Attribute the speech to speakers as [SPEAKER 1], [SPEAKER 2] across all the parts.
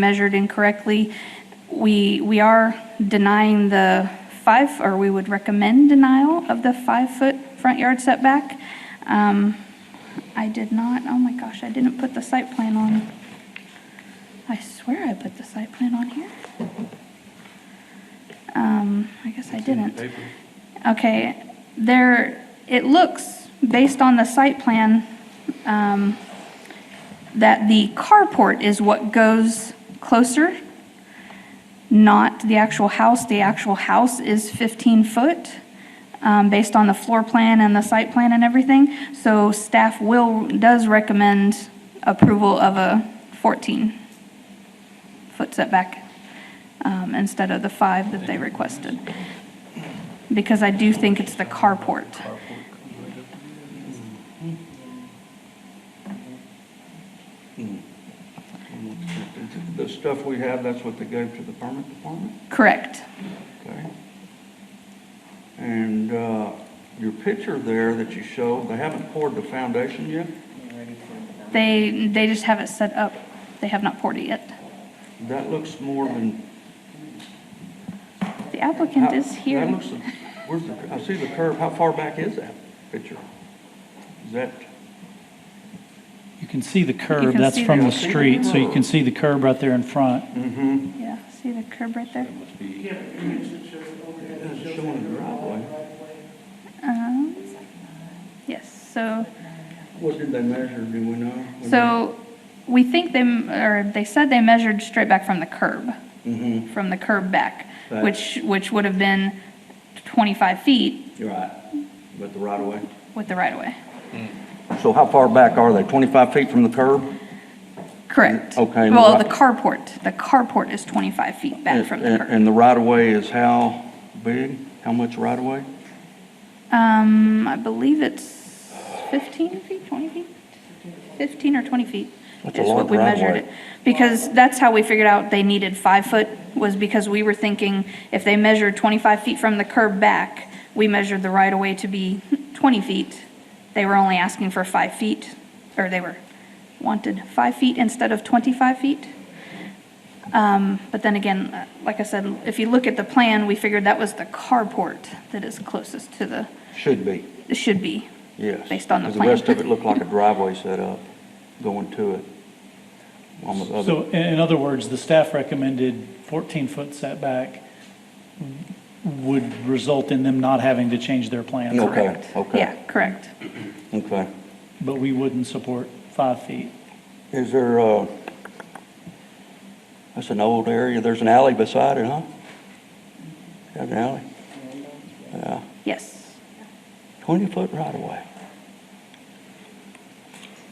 [SPEAKER 1] measured incorrectly. We, we are denying the five, or we would recommend denial of the five-foot front yard setback. Um, I did not, oh my gosh, I didn't put the site plan on. I swear I put the site plan on here. Um, I guess I didn't. Okay, there, it looks, based on the site plan, um, that the carport is what goes closer, not the actual house. The actual house is 15 foot, um, based on the floor plan and the site plan and everything. So staff will, does recommend approval of a 14-foot setback um, instead of the five that they requested. Because I do think it's the carport.
[SPEAKER 2] Hmm. The stuff we have, that's what they gave to the permit department?
[SPEAKER 1] Correct.
[SPEAKER 2] Okay. And uh, your picture there that you showed, they haven't poured the foundation yet?
[SPEAKER 1] They, they just have it set up. They have not poured it yet.
[SPEAKER 2] That looks more than.
[SPEAKER 1] The applicant is
[SPEAKER 2] That
[SPEAKER 1] here.
[SPEAKER 2] looks, where's the, I see the curve, how far back is that picture? Is that,
[SPEAKER 3] You can see the curb,
[SPEAKER 1] can
[SPEAKER 3] that's
[SPEAKER 1] see
[SPEAKER 3] from
[SPEAKER 1] the-
[SPEAKER 3] the street, so you can see the curb right there in front.
[SPEAKER 2] mm-hmm,
[SPEAKER 1] Yeah, see the curb right there?
[SPEAKER 2] it's showing the driveway.
[SPEAKER 1] Um, Yes, so,
[SPEAKER 2] What did they measure, do we know?
[SPEAKER 1] so we think they, m- or they said they measured straight back from the curb,
[SPEAKER 2] Mm-hmm,
[SPEAKER 1] from the curb back,
[SPEAKER 2] Back.
[SPEAKER 1] which, which would have been 25 feet
[SPEAKER 2] you're right, but the right of way.
[SPEAKER 1] with the right-of-way.
[SPEAKER 2] So how far back are they, 25 feet from the curb?
[SPEAKER 1] Correct.
[SPEAKER 2] Okay, and
[SPEAKER 1] Well,
[SPEAKER 2] the
[SPEAKER 1] the
[SPEAKER 2] right-
[SPEAKER 1] carport, the carport is 25 feet back from the
[SPEAKER 2] And-
[SPEAKER 1] curb.
[SPEAKER 2] And the right-of-way is how big? How much right-of-way?
[SPEAKER 1] Um, I believe it's 15 feet, 20 feet? 15 or 20 feet
[SPEAKER 2] That's a
[SPEAKER 1] is
[SPEAKER 2] long
[SPEAKER 1] what we measured
[SPEAKER 2] driveway.
[SPEAKER 1] it. Because that's how we figured out they needed five foot, was because we were thinking if they measured 25 feet from the curb back, we measured the right-of-way to be 20 feet. They were only asking for five feet, or they were wanted five feet instead of 25 feet. Um, But then again, uh, like I said, if you look at the plan, we figured that was the carport that is closest to the
[SPEAKER 2] Should be,
[SPEAKER 1] it should be.
[SPEAKER 2] yes.
[SPEAKER 1] Based on the
[SPEAKER 2] 'Cause
[SPEAKER 1] plan.
[SPEAKER 2] rest of it looked like a driveway set up going to it. On the other-
[SPEAKER 3] So i- in other words, the staff recommended 14-foot setback would result in them not having to change their plans.
[SPEAKER 2] Okay,
[SPEAKER 1] Yeah,
[SPEAKER 2] okay,
[SPEAKER 1] correct.
[SPEAKER 2] okay.
[SPEAKER 3] But we wouldn't support five feet.
[SPEAKER 2] Is there, uh, that's an old area, there's an alley beside it, huh? There's an alley? Yeah,
[SPEAKER 1] Yes.
[SPEAKER 2] 20-foot right-of-way.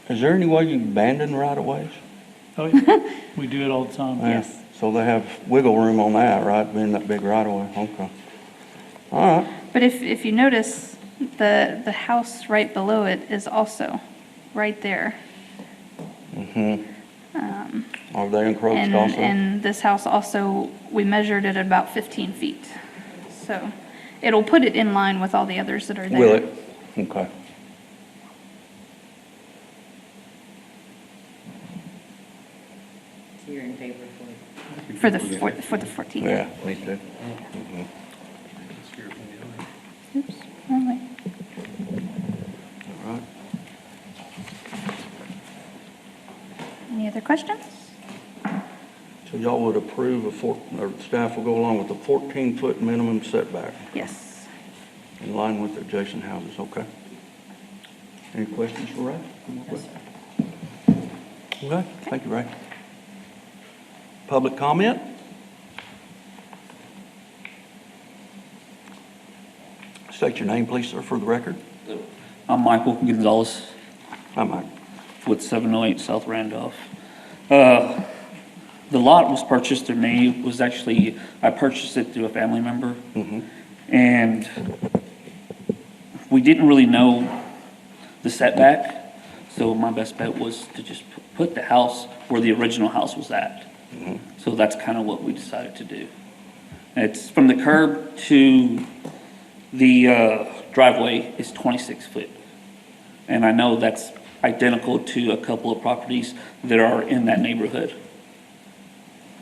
[SPEAKER 2] Is there any way you can abandon right-of-ways?
[SPEAKER 3] Oh, yeah. We do it all the time.
[SPEAKER 2] Yeah,
[SPEAKER 1] Yes.
[SPEAKER 2] So they have wiggle room on that, right, being that big right away, okay. All right,
[SPEAKER 1] But if, if you notice, the, the house right below it is also right there.
[SPEAKER 2] Mm-hmm. are they encroached
[SPEAKER 1] Um, And,
[SPEAKER 2] Oh, also?
[SPEAKER 1] and this house also, we measured it at about 15 feet. So it'll put it in line with all the others that are there.
[SPEAKER 2] Will it? Okay.
[SPEAKER 4] So you're in favor of it?
[SPEAKER 1] For the, for for the 14.
[SPEAKER 2] Yeah, me too. Mm-hmm.
[SPEAKER 1] Oops, wrong way.
[SPEAKER 2] All right.
[SPEAKER 1] Any other questions?
[SPEAKER 2] So y'all would approve a four, or staff will go along with the fourteen-foot minimum setback
[SPEAKER 1] Yes.
[SPEAKER 2] in line with adjacent houses, okay? Any questions for Ray? Any more questions? Okay, thank you, Ray. Public comment? State your name, please, sir, for the record.
[SPEAKER 5] I'm Michael Gonzalez
[SPEAKER 2] Hi, Mike.
[SPEAKER 5] with 708 South Randolph. Uh, The lot was purchased through me, It was actually, I purchased it through a family member. And we didn't really know the setback, so my best bet was to just pu- put the house where the original house was at. So that's kind of what we decided to do. It's from the curb to the uh, driveway is 26 foot. And I know that's identical to a couple of properties that are in that neighborhood.